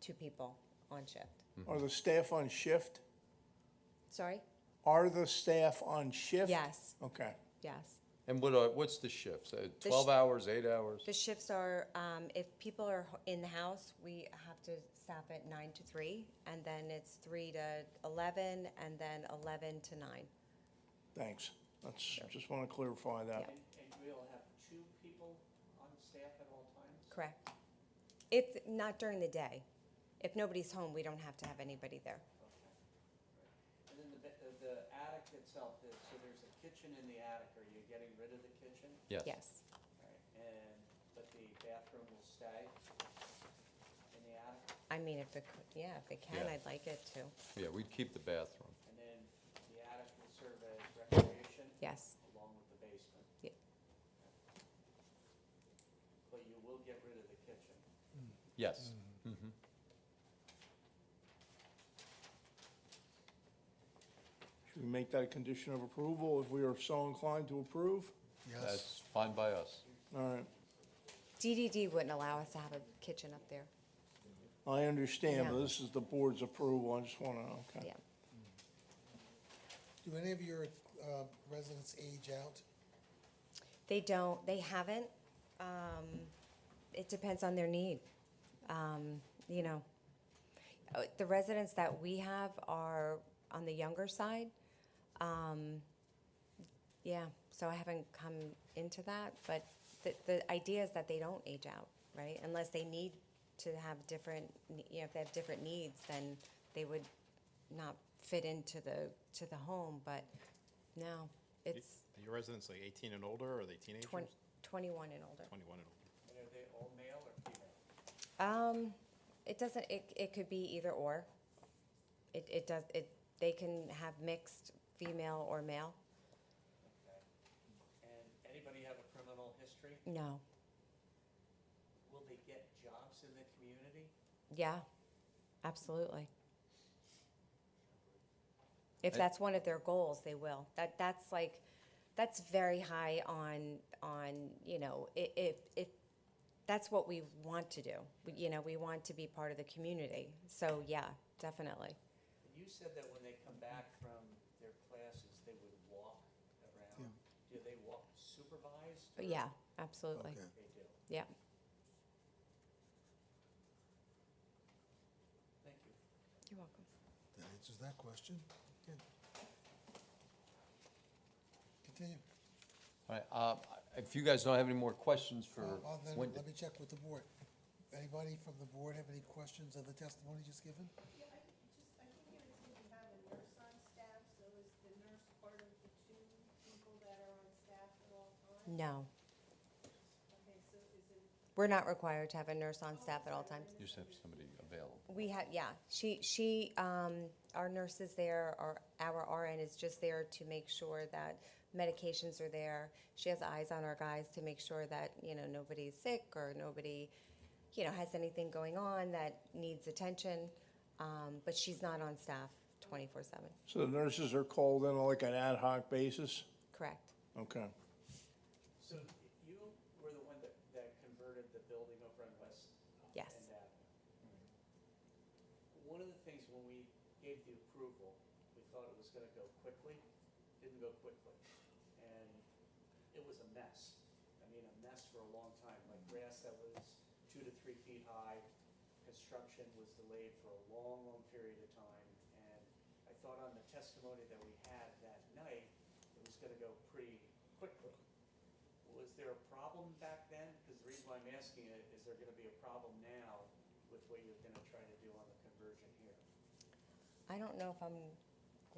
two people on shift. Are the staff on shift? Sorry? Are the staff on shift? Yes, Okay. yes. And what are, what's the shifts? Uh, The Twelve sh- hours, eight hours? The shifts are, um, if people are ho- in the house, we have to stop at nine to three, and then it's three to eleven, and then eleven to nine. Thanks. That's, just want to clarify that. Yeah. And, and we'll have two people on staff at all times? Correct. If, not during the day. If nobody's home, we don't have to have anybody there. And then the, ba- the- the attic itself, is- so there's a kitchen in the attic, are you getting rid of the kitchen? Yes, Alright, And, but the bathroom will stay in the attic, I mean, if they, could- yeah, if they can, Yeah. I'd like it to, Yeah, we'd keep the bathroom. and then the attic will serve as recreation yes. along with the basement? Yeah. But you will get rid of the kitchen? Yes. Mm, Mhm. Should we make that a condition of approval if we are so inclined to approve? Yes, That's fine by us. All right. DDD wouldn't allow us to have a kitchen up there, I understand, but Yeah. this is the board's approval. I just want to, okay. yeah. do any of your uh, residents age out? They don't, they haven't. Um, it depends on their need. Um, you know, Uh, the residents that we have are on the younger side. Um, yeah, so I haven't come into that, but the, the idea is that they don't age out, right? Unless they need to have different, ne- you know, if they have different needs, then they would not fit into the, to the home, but no, it's Are your residents like 18 and older, or are they teenagers? twenty, twenty-one and older. 21 and older. And are they all male or female? Um, it doesn't, it, it could be either or. It, it does, it, they can have mixed female or male. Okay. And anybody have a criminal history? No, Will they get jobs in the community? yeah, absolutely. If I- that's one of their goals, they will. That, that's like, that's very high on, on, you know, i- if, if, that's what we want to do. We- You know, we want to be part of the community. So, yeah, definitely. And you said that when they come back from their classes, they would walk around. Do they walk supervised? But or- Uh, yeah, absolutely. Okay. They do. Yeah. Thank you. You're welcome. That answers that question. Good. Continue. All right, uh, if you guys don't have any more questions for Uh, Well, then, Wendy. let me check with the board. Anybody from the board have any questions of the testimony just given? Yeah, I think just, I think you were saying you have a nurse on staff, so is the nurse part of the two people that are on staff at all times? No, Okay, so is it, we're not required to have a nurse on staff at all times. You just have somebody available. We have, yeah, she, she, um, our nurse is there, our, our RN is just there to make sure that medications are there. She has eyes on our guys to make sure that, you know, nobody's sick or nobody, you know, has anything going on that needs attention. Um, but she's not on staff twenty-four seven, So the nurses are called in on like an ad hoc basis? correct? Okay. So you were the one that, that converted the building over on West Yes. End Avenue. uh, One of the things when we gave the approval, we thought it was gonna go quickly, didn't go quickly. And it was a mess. I mean, a mess for a long time, like grass that was two to three feet high. Construction was delayed for a long, long period of time. And I thought on the testimony that we had that night, it was gonna go pretty quickly. Was there a problem back then? Because the reason why I'm asking it, is there gonna be a problem now with what you're gonna try to do on the conversion here? I don't know if I'm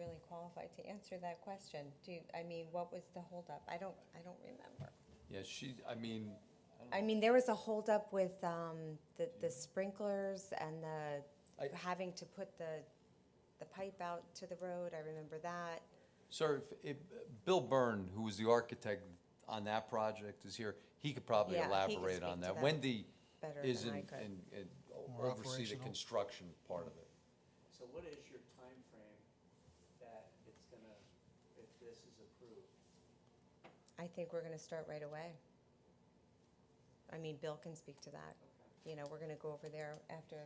really qualified to answer that question. Do, you- I mean, what was the holdup? I don't, I don't remember. Yeah, she, I mean, I mean, there was a holdup with um, the, the sprinklers and I- the, having to put the, the pipe out to the road, I remember that. sir, if, if, Bill Byrne, who was the architect on that project, is here. He could probably Yeah, he could elaborate on speak to that. that Wendy better is than in, I could. in, in- More oversee the operational. construction part of it. So what is your time frame that it's gonna, if this is approved? I think we're gonna start right away. I mean, Bill can speak to that. Okay. You know, we're gonna go over there after